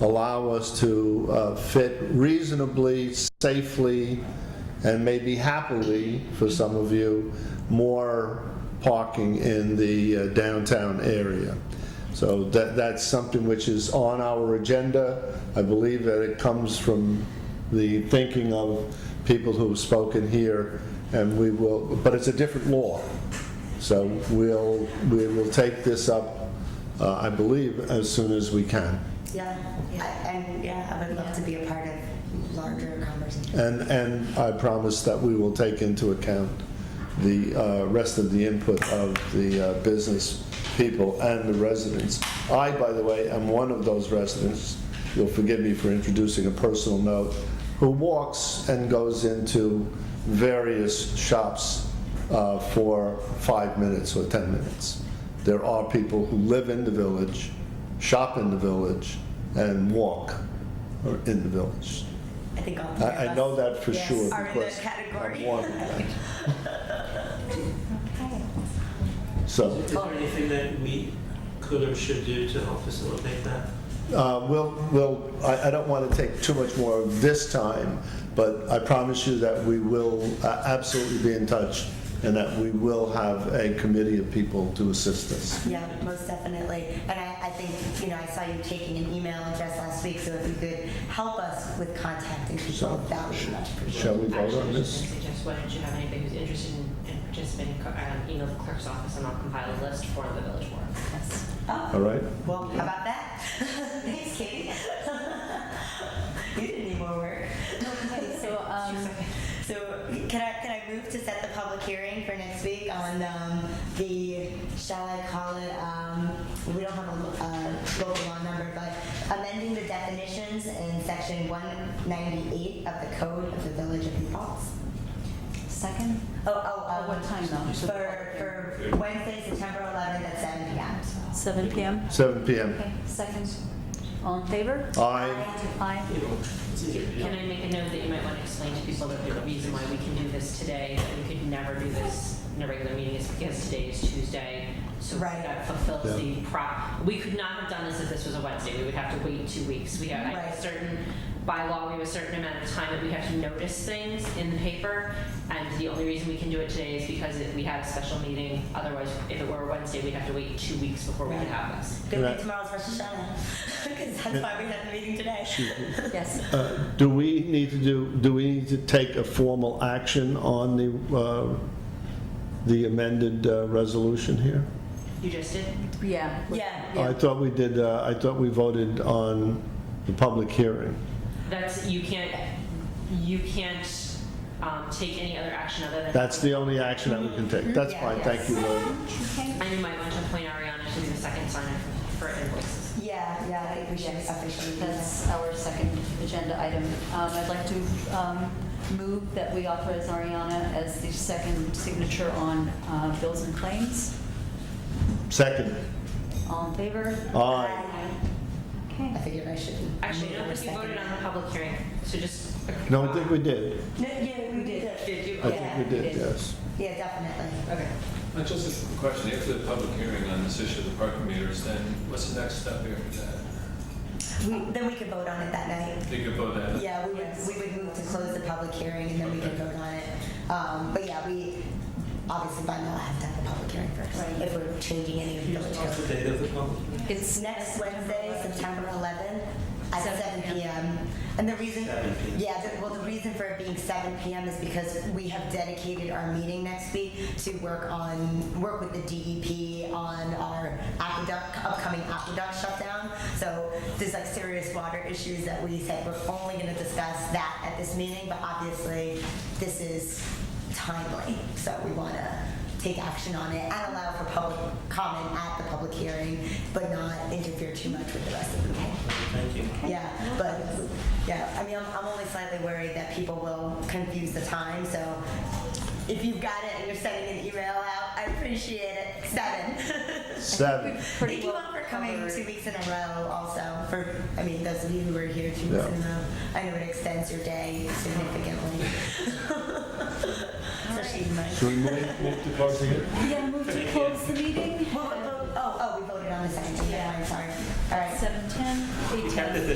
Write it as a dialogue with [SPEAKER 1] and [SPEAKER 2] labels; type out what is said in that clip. [SPEAKER 1] allow us to uh, fit reasonably, safely, and maybe happily, for some of you, more parking in the uh, downtown area. So that, that's something which is on our agenda. I believe that it comes from the thinking of people who've spoken here, and we will, but it's a different law. So we'll, we will take this up, uh, I believe, as soon as we can.
[SPEAKER 2] Yeah, I- and yeah, I would love to be a part of larger conversations.
[SPEAKER 1] And, and I promise that we will take into account the uh, rest of the input of the uh, business people and the residents. I, by the way, am one of those residents, you'll forgive me for introducing a personal note, who walks and goes into various shops uh, for five minutes or 10 minutes. There are people who live in the village, shop in the village, and walk in the village.
[SPEAKER 2] I think all three of
[SPEAKER 1] I, I
[SPEAKER 2] us
[SPEAKER 1] know that for
[SPEAKER 2] yes,
[SPEAKER 1] sure.
[SPEAKER 2] Are in that
[SPEAKER 1] because
[SPEAKER 2] category.
[SPEAKER 1] I'm one of them. So,
[SPEAKER 3] Is there anything that we could or should do to help facilitate that?
[SPEAKER 1] uh, we'll, we'll, I, I don't want to take too much more of this time, but I promise you that we will uh, absolutely be in touch and that we will have a committee of people to assist us.
[SPEAKER 2] Yeah, most definitely. And I, I think, you know, I saw you taking an email address last week, so if you could help us with contacting people,
[SPEAKER 1] So,
[SPEAKER 2] that would be much appreciated.
[SPEAKER 1] Shall we vote on
[SPEAKER 4] Actually, I was
[SPEAKER 1] this?
[SPEAKER 4] just gonna suggest, why don't you have anybody who's interested in in participating, co- um, email the clerk's office and I'll compile a list for the village board.
[SPEAKER 2] Yes.
[SPEAKER 1] All
[SPEAKER 2] Oh,
[SPEAKER 1] right?
[SPEAKER 2] well, how about that? Thanks, Katie. You didn't need more work.
[SPEAKER 5] Okay, so, um,
[SPEAKER 2] So can I, can I move to set the public hearing for next week on um, the, shall I call it, um, we don't have a lo- uh, local law number, but amending the definitions in section 198 of the code of the Village of New Paltz.
[SPEAKER 5] second,
[SPEAKER 2] Oh, oh, uh,
[SPEAKER 5] At what time, though?
[SPEAKER 2] For, for Wednesday, September 11th at 7 PM.
[SPEAKER 5] seven PM?
[SPEAKER 1] 7 PM.
[SPEAKER 5] Okay, second. All in favor?
[SPEAKER 1] Aye.
[SPEAKER 5] Aye.
[SPEAKER 3] You know, it's easier, you know.
[SPEAKER 4] Can I make a note that you might want to explain to people that the reason why we can do this today, that we could never do this in a regular meeting is because today is Tuesday. So
[SPEAKER 2] Right.
[SPEAKER 4] that fulfills
[SPEAKER 1] Yeah.
[SPEAKER 4] the prop, we could not have done this if this was a Wednesday, we would have to wait two weeks. We have I have
[SPEAKER 2] Right.
[SPEAKER 4] a certain, by law, we have a certain amount of time that we have to notice things in the paper. And the only reason we can do it today is because if we had a special meeting, otherwise if it were a Wednesday, we'd have to wait two weeks before we could have this.
[SPEAKER 2] Good
[SPEAKER 1] Right.
[SPEAKER 2] thing tomorrow's Rosh Hashanah, because that's why we had the meeting today.
[SPEAKER 5] Yes.
[SPEAKER 1] Uh, Do we need to do, do we need to take a formal action on the, uh, the amended uh, resolution here?
[SPEAKER 4] You just did?
[SPEAKER 5] Yeah.
[SPEAKER 2] Yeah.
[SPEAKER 1] I thought we did, uh, I thought we voted on the public hearing.
[SPEAKER 4] That's, you can't, you can't um, take any other action other than.
[SPEAKER 1] That's the only action that we can take. That's fine, thank you very much.
[SPEAKER 4] And you might want to appoint Ariana to be the second signer for invoices.
[SPEAKER 2] Yeah, yeah, I think we should officially do that.
[SPEAKER 5] That's our second agenda item. Um, I'd like to um, move that we authorize Ariana as the second signature on uh, bills and claims.
[SPEAKER 1] Second,
[SPEAKER 5] All in favor?
[SPEAKER 1] aye.
[SPEAKER 5] Okay.
[SPEAKER 2] I figured I should.
[SPEAKER 4] Actually, no, because you voted on the public hearing, so just.
[SPEAKER 1] No, I think we did.
[SPEAKER 2] No, yeah, we did.
[SPEAKER 4] Did you?
[SPEAKER 1] I think we
[SPEAKER 2] Yeah,
[SPEAKER 1] did, yes.
[SPEAKER 2] Yeah, definitely.
[SPEAKER 4] Okay.
[SPEAKER 6] Uh, Just a question, after the public hearing on this issue of the parking meters, then what's the next step after that?
[SPEAKER 2] We, then we could vote on it that night.
[SPEAKER 6] Think about that?
[SPEAKER 2] Yeah, we would, we would move to close the public hearing and then we could vote on it. Um, but yeah, we, obviously by now I have to have the public hearing first,
[SPEAKER 5] Right.
[SPEAKER 2] if we're changing any of the
[SPEAKER 3] Can you just
[SPEAKER 2] village
[SPEAKER 3] tell us the
[SPEAKER 2] code.
[SPEAKER 3] date of the public hearing?
[SPEAKER 2] It's
[SPEAKER 5] It's
[SPEAKER 2] next Wednesday, September 11th, at 7
[SPEAKER 5] Seven
[SPEAKER 2] PM. And the reason,
[SPEAKER 3] 7 p.m..
[SPEAKER 2] yeah, the- well, the reason for it being 7 PM is because we have dedicated our meeting next week to work on, work with the DEP on our aqueduct, upcoming aqueduct shutdown. So there's like serious water issues that we said we're only going to discuss that at this meeting, but obviously this is timely, so we want to take action on it and allow for public comment at the public hearing, but not interfere too much with the rest of the meeting.
[SPEAKER 3] Thank you.
[SPEAKER 2] Yeah, but, yeah, I mean, I'm, I'm only slightly worried that people will confuse the time, so if you've got it and you're sending an email out, I appreciate it. Seven.
[SPEAKER 1] Seven,
[SPEAKER 2] Thank you all for coming two weeks in a row also, for, I mean, those of you who were here two weeks in a row. I know it extends your day significantly. Especially mine.
[SPEAKER 1] should we move, move to close the hearing?
[SPEAKER 5] Yeah, move to close the meeting
[SPEAKER 2] Well, we vote- Oh, oh, we voted on the second, yeah, I'm sorry. All right.
[SPEAKER 5] at 7:10,
[SPEAKER 3] We kept it this